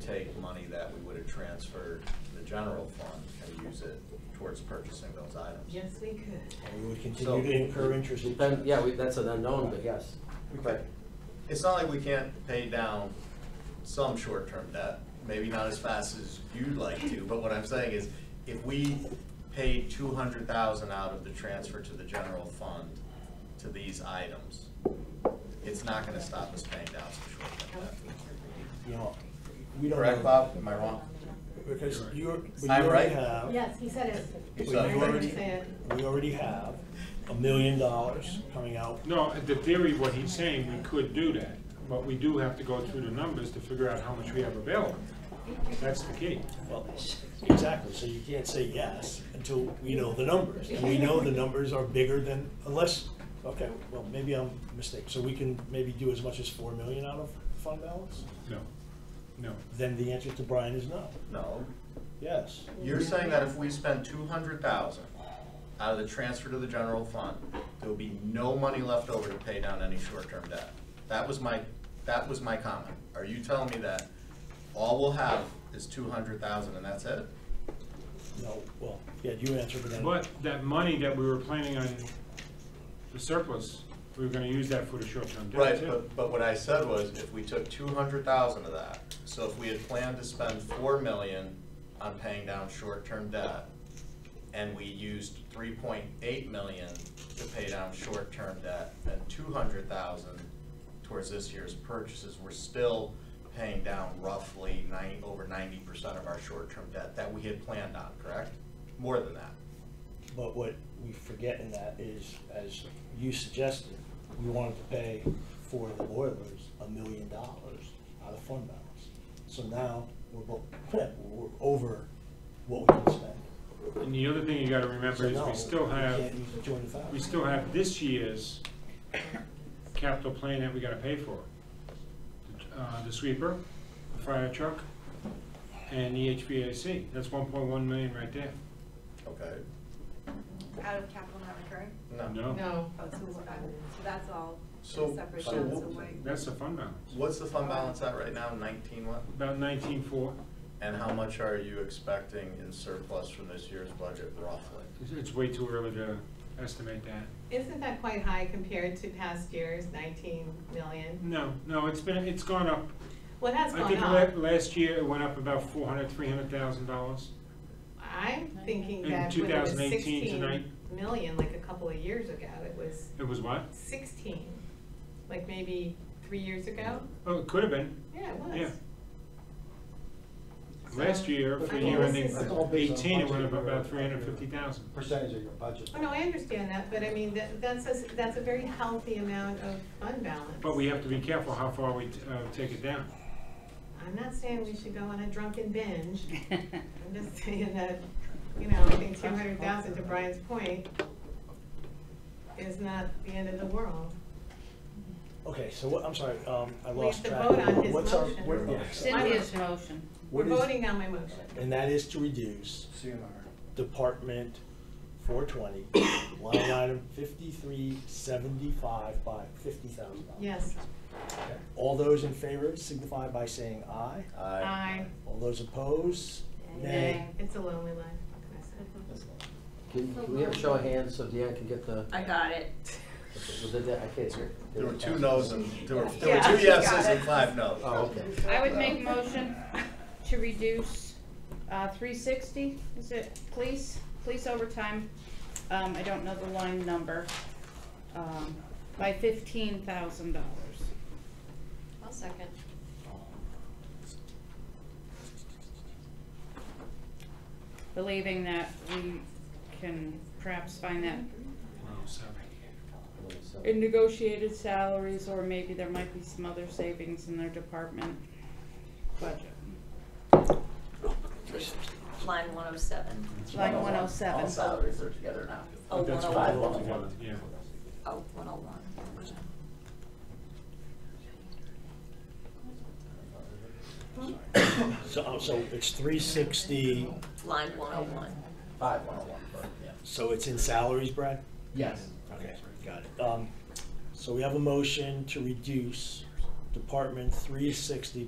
take money that we would have transferred to the general fund and use it towards purchasing those items. Yes, we could. And we would So- continue to incur interest. Then, yeah, we- that's an unknown, but yes. We could- It's not like we can't pay down some short-term debt, maybe not as fast as you'd like to, but what I'm saying is, if we paid two hundred thousand out of the transfer to the general fund to these items, it's not gonna stop us paying down some short-term debt. You know, we don't. Correct, know. Bob? Am I wrong? Because you're, but you I'm already right? have. Yes, he said it. He but said you it. already- Say it. We already have a million dollars coming out. No, the theory, what he's saying, we could do that, but we do have to go through the numbers to figure out how much we have available. That's the key. Well, Exactly, so you can't say yes until we know the numbers. And we know the numbers are bigger than, unless, okay, well, maybe I'm mistaken. So we can maybe do as much as four million out of fund balance? No, no. Then the answer to Brian is no. No, Yes. You're saying that if we spend two hundred thousand out of the transfer to the general fund, there will be no money left over to pay down any short-term debt. That was my, that was my comment. Are you telling me that all we'll have is two hundred thousand and that's it? No, well, yeah, you answer, but then. But that money that we were planning on, the surplus, we were gonna use that for the short-term debt Right, too. but, but what I said was, if we took two hundred thousand of that, so if we had planned to spend four million on paying down short-term debt, and we used three point eight million to pay down short-term debt, and two hundred thousand towards this year's purchases, we're still paying down roughly nine, over ninety percent of our short-term debt that we had planned on, correct? More than that. But what we forget in that is, as you suggested, we wanted to pay for the boilers a million dollars out of fund balance. So now, we're both, we're over what we can spend. And the other thing you gotta remember So is no, we still have, can't use the 200,000. we still have this year's capital plan that we gotta pay for. Uh, the sweeper, the fire truck, and the HVAC. That's one point one million right there. Okay. Out of capital not recurring? No? No. Oh, so we're out. So that's all So- separate, so that's what- away. That's the fund balance. What's the fund balance at right now, nineteen what? About nineteen-four. And how much are you expecting in surplus from this year's budget roughly? It's- It's way too early to estimate that. Isn't that quite high compared to past years, nineteen million? No, no, it's been, it's gone up. Well, it has I gone think la- up. last year it went up about four hundred, three hundred thousand dollars. I'm thinking In that when it was 2018 tonight. sixteen million, like a couple of years ago, it was It was what? sixteen, like maybe three years ago? Oh, it could have been. Yeah, it was. Yeah. Last year, for I mean, year this ending is- It's all based on eighteen, it went up budget. about three hundred fifty thousand. percentage of your budget. Oh, no, I understand that, but I mean, that, that's a, that's a very healthy amount of fund balance. But we have to be careful how far we, t- uh, take it down. I'm not saying we should go on a drunken binge. I'm just saying that, you know, I think two hundred thousand, to Brian's point, is not the end of the world. Okay, so what, I'm sorry, um, I We have lost to track. vote on his What's our- motion. we're- Yeah. Cynthia's motion. We're What is- voting on my motion. And that is to reduce CNR. Department four twenty, line item fifty-three seventy-five by fifty thousand dollars. Yes, All those in favor signify by saying aye. aye. All those opposed, nay. Nay, it's a lonely life, what can I Mm-hmm. say? Can, can we have a show of hands so Deanne can get the, I got it. was it that, I can't hear. There were two no's and, there were, there were Yeah, two she yeses got and it. five no's. Oh, okay. I would make a motion to reduce, uh, three sixty, is it, police, police overtime, um, I don't know the line number, um, by fifteen thousand dollars. I'll second. Believing that we can perhaps find that Well, seven. in negotiated salaries, or maybe there might be some other savings in their department budget. Line one oh seven. Line one oh seven. All salaries are together now. Oh, But one that's oh five one. altogether, yeah. Oh, one oh one. So, oh, so it's three sixty, Line one oh one. Five, one oh one. so it's in salaries, Brad? Yes. Okay, got it. Um, so we have a motion to reduce Department three sixty